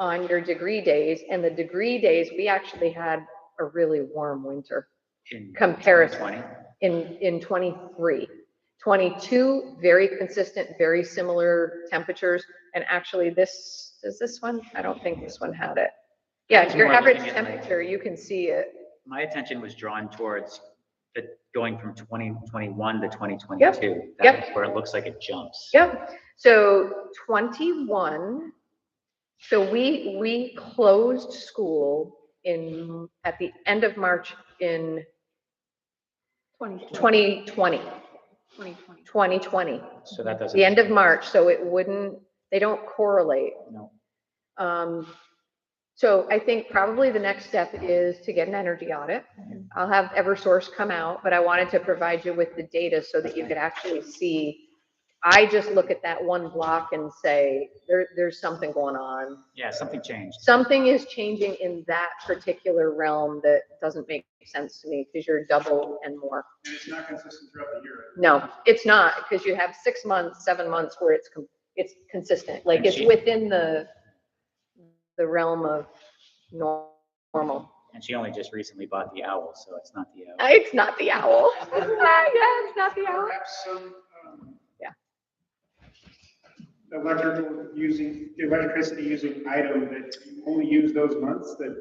on your degree days. And the degree days, we actually had a really warm winter in Comparison. 2020. in, in 23. 22, very consistent, very similar temperatures. And actually this, is this one? I don't think this one had it. Yeah, It's your more average looking at like- temperature, you can see it. My attention was drawn towards the, going from 2021 to 2022. yep. That's where it looks like it jumps. Yep, so twenty-one, so we, we closed school in, at the end of March in Twenty. 2020, Twenty 2020, So that doesn't. the end of March, so it wouldn't, they don't correlate. No. Um, so I think probably the next step is to get an energy audit. I'll have Eversource come out, but I wanted to provide you with the data so that you could actually see. I just look at that one block and say, there, there's something going on. Yeah, something changed. Something is changing in that particular realm that doesn't make sense to me because you're double and more. And it's not consistent throughout the year. No, it's not, because you have six months, seven months where it's, com- it's consistent, like And it's she- within the, the realm of nor- normal. And she only just recently bought the owl, so it's not the owl. It's not the owl. Yeah, it's not the owl. Perhaps some. um, Yeah. Electrical using, electricity using item that you only use those months that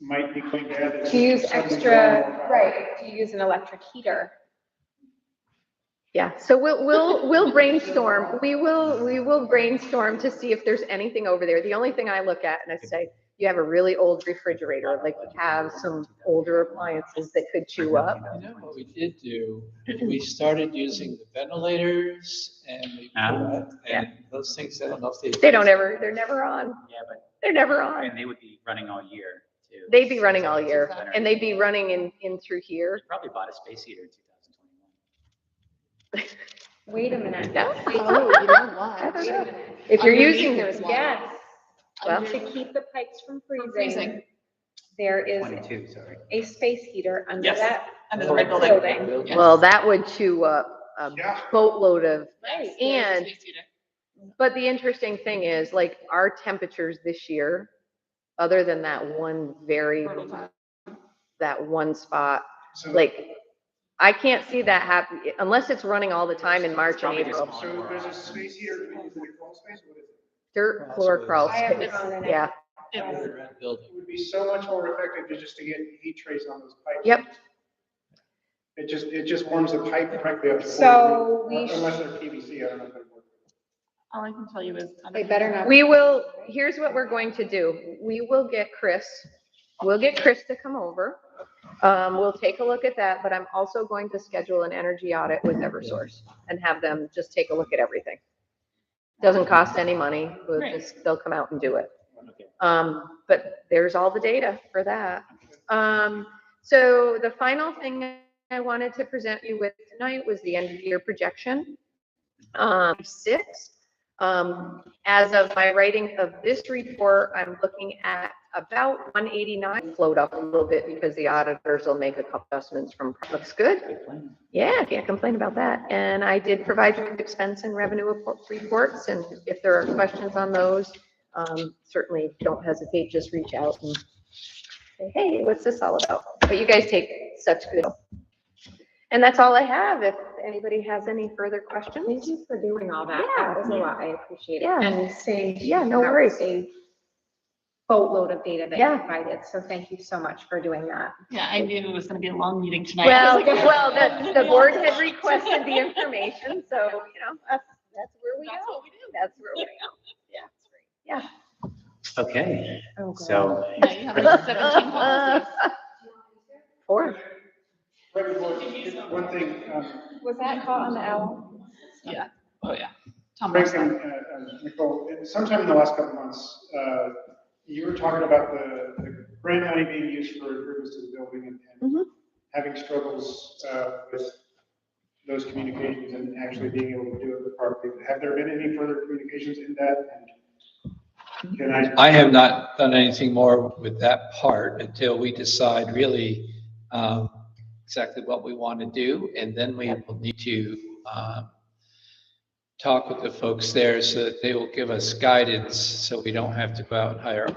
might be cleaned out. as To use something extra, normal. right, to use an electric heater. Yeah, so we'll, we'll, we'll brainstorm, we will, we will brainstorm to see if there's anything over there. The only thing I look at and I say, you have a really old refrigerator, like you have some older appliances that could chew up. You know what we did do? We started using the ventilators and we, Ah. and those things, I don't know if they. They don't ever, they're never on, Yeah, but, they're never on. and they would be running all year too. They'd be running all It's year better. and they'd be running in, in through They here. Probably bought a space heater in 2021. Wait a minute. No? Oh, you know I what? don't Wait know. a minute. If you're Underneath using, There's one. yeah, Yes. Well- To keep the pipes from freezing, freezing. there is 22, sorry. a space heater under Yes. that. Under the red Building. building. Building. well, that would chew up a Yeah. boatload of Nice. And- There's a space heater. But the interesting thing is, like, our temperatures this year, other than that one very, that one spot, So- like, I can't see that happen, unless it's running all the time in March and Probably just April. So there's a space here, is it a crawl space? What is it? Dirt floor crawl I have space, one in it. yeah. Under It's- the red building. It would be so much more effective to just to get heat trace on those pipes. Yep. It just, it just warms the pipe directly up. to So 40. we Unless they're PVC, I don't know if they work. All I can tell you is. They better not. We will, here's what we're going to do. We will get Chris, we'll get Chris to come over. Um, we'll take a look at that, but I'm also going to schedule an energy audit with Eversource and have them just take a look at everything. Doesn't cost any money, we'll Great. just, they'll come out and do it. Okay. Um, but there's all the data for that. Um, so the final thing I wanted to present you with tonight was the end of year projection. Um, six, um, as of my writing of this report, I'm looking at about one eighty-nine, float up a little bit because the auditors will make a couple adjustments from, looks good. Good plan. Yeah, can't complain about that. And I did provide you with expense and revenue report- reports, and if there are questions on those, um, certainly don't hesitate, just reach out and say, hey, what's this all about? But you guys take such good. And that's all I have. If anybody has any further questions, Thank you for doing all that. Yeah. That was a lot. I appreciate it. Yeah. And saying. Yeah, no that worries. was a Boatload of data that Yeah. you provided. So thank you so much for doing that. Yeah, I knew it was gonna be a long meeting tonight. Well, well, the, the board had requested the information, so, you know, that's, that's where we That's go. what we do. That's where we Okay, Oh, God. so Yeah, you have like go. seventeen policies. Four. Right before- One thing, um, Was that caught on the owl? Yeah, oh, yeah. Tom Frank and Morrison. uh, uh, Nicole, sometime in the last couple months, uh, you were talking about the the grant money being used for improvements to the building and- and having struggles uh, with those communications and actually being able to do it properly. Have there been any further communications in that? And Can I? I have not done anything more with that part until we decide really um, exactly what we want to do, and then we will need to um, talk with the folks there so that they will give us guidance, so we don't have to go out and hire